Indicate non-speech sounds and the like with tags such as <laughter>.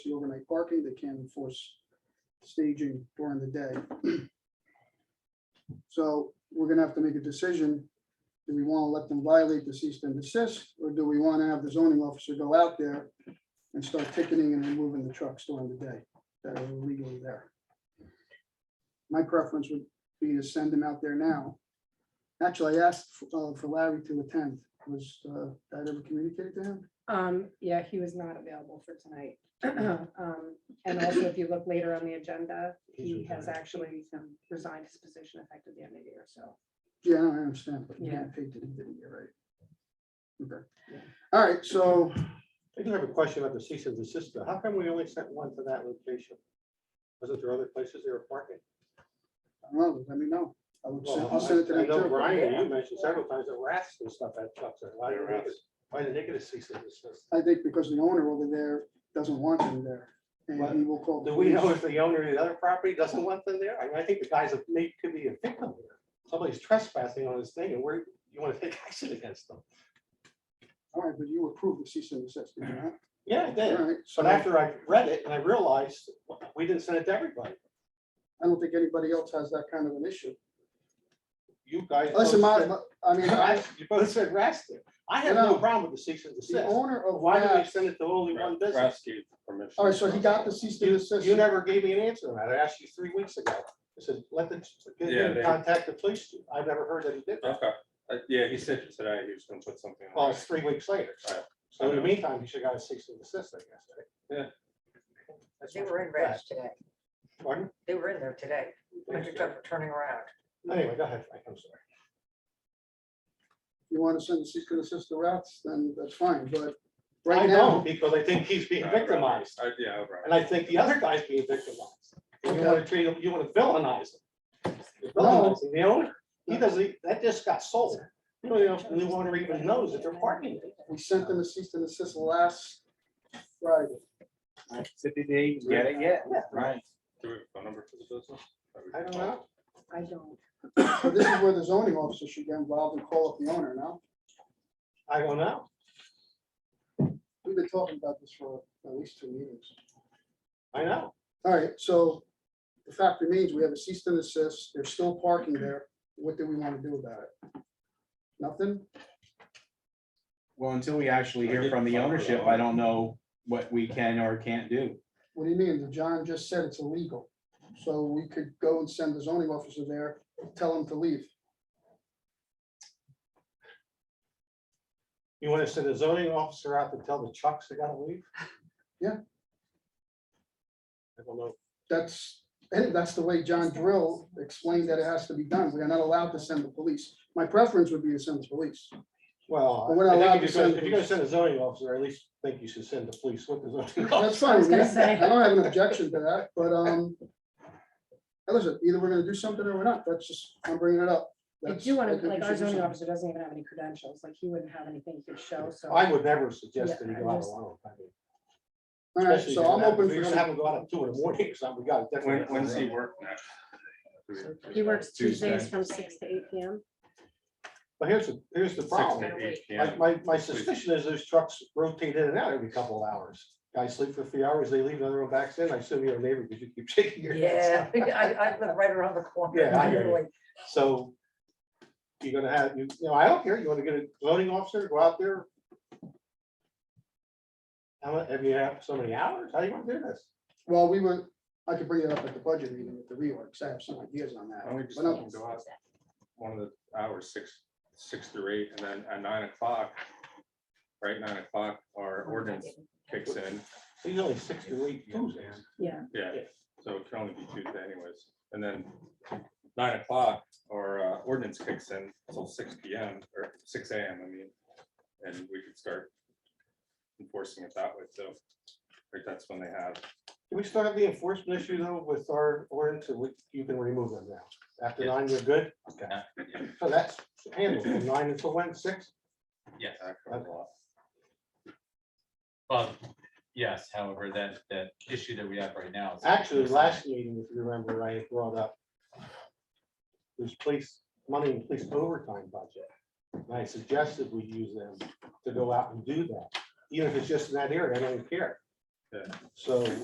the overnight parking, they can enforce staging during the day. <clears throat> So we're gonna have to make a decision. Do we want to let them violate the cease and desist, or do we want to have the zoning officer go out there and start ticketing and removing the trucks during the day that are illegally there? My preference would be to send them out there now. Actually, I asked uh, for Larry to attend. Was uh, that ever communicated to him? Um, yeah, he was not available for tonight. <clears throat> Um, and also if you look later on the agenda, he has actually um, resigned his position effective the end of the year, so. Yeah, I understand, but yeah, Yeah. paid to do it, you're right. Okay. All right, so I do have a question about the cease and desist. though. How come we only sent one to that location? Wasn't there other places they were parking? Well, let me know. I would send, I'll Well, send it to I- I them know too. Brian, you mentioned several times the rats and stuff at Chuck's. and Why did There they are get- rats. why did they get a cease and desist? I think because the owner over there doesn't want them there, and he will call. the Do we know police. if the owner of the other property doesn't want them there? I mean, I think the guy's a, may, could be a victim here. Somebody's trespassing on his thing and we're, you want to take action against them. All right, but you approved the cease and desist, did you not? Yeah, I All did. right, so But I after I read it and I realized, we didn't send it to everybody. don't think anybody else has that kind of an issue. You guys. Listen, both my, said- my- I mean, <laughs> I, You both said rats there. I have no No. problem with the cease and the desist. owner But of Why did we that, send it to only one business? Oh, Rescue permission. all right, so he got the cease and You, desist. you never gave me an answer on that. I asked you three weeks ago. I said, let the, get Yeah, him to they- contact the police. chief. I've never heard that he did that. Okay, Uh, yeah, he said today he was gonna put something. on Well, it. it's three weeks later. Right. So in the meantime, he should got a cease and desist, I guess, right? Yeah. That's They my- were in Reds today. Pardon? They were in there today. I just kept turning around. Anyway, go ahead, Frank, I'm sorry. You want to send the cease and desist to rats, then that's fine, but I right don't, now, because I think he's being Right, right. victimized. Uh, Yeah, right. And I think the other guy's being victimized. And You Okay. wanna treat him, you wanna villainize him. You're No. Villainizing the owner. He doesn't, e, that just got sold. You don't even, the new owner even knows that they're parking there. we sent them a cease and desist last Friday. City they didn't get it yet. Yeah. Right. Do we have a phone number for the business? That we I can don't call? know. I don't, So this is where the zoning officer should get involved and call up the owner now. I don't know. We've been talking about this for at least two meetings. I know. All right, so the fact remains, we have a cease and desist. They're still parking there. What do we want to do about it? Nothing? Well, until we actually hear from the ownership, I don't know what we can or can't do. What do you mean? John just said it's illegal. So we could go and send the zoning officer there, tell him to leave. You wanna send a zoning officer out to tell the Chucks they gotta leave? Yeah. I don't know. That's, I think that's the way John Drill explained that it has to be done. We are not allowed to send the police. My preference would be to send the <laughs> police. But Well, we're not I allowed think to if you're send gonna- if you're gonna send a zoning officer, I at least think you should send the police with the zoning That's officer. fine. with me. gonna say. <laughs> I don't have an objection to that, but, um, now listen, either we're gonna do something or we're not. That's just, I'm bringing it up. I That's- do I want think to, we like, should our do zoning something. officer doesn't even have any credentials, like, he wouldn't have anything to show, so. I would never suggest that he Yeah, I go out just- alone. I mean, All right, especially so if I'm you're gonna- open if You're for, gonna have some- him go out at two in the morning or something. We got it. When, when's he work next? Do we- He works Tuesdays Tuesday. from six to eight P M. But here's, the here's the Six to problem. eight My, PM. my, my suspicion is those trucks rotate in and out every couple of hours. Guys sleep for a few hours, they leave, another one backs in. I assume you're a neighbor because you keep <laughs> shaking your Yeah, <laughs> head. I, I live right around the corner. Yeah, I hear you. literally. So you're gonna have, you you know, I don't care. You wanna get a loading officer, go out there? How, mu- have you have so many hours? How do you wanna do this? well, we were, I could bring it up at the budget meeting with the reorgs. I have some ideas on that. Why don't we just But not- let him go out One of the hours, six, six through eight, and then at nine o'clock, right, nine o'clock, our ordinance kicks in. He's only six to eight Tuesdays. Yeah, Yeah, Yeah. so it can only be Tuesday anyways. And then nine o'clock, our uh, ordinance kicks in until six P M or six A M, I mean. And we could start enforcing it that way, so like that's when they have, Do we still have the enforcement issue though with our ordinance? and we- You can remove them now. After Yeah. nine, you're good? Yeah. So that's handled from nine until when, six? Yes, that kind of law. but yes, however, that, that issue that we have right now. is- Actually, last meeting, if you remember, I had brought up there's police, money in police overtime budget. And I suggested we use them to go out and do that, even if it's just in that area, I don't care. So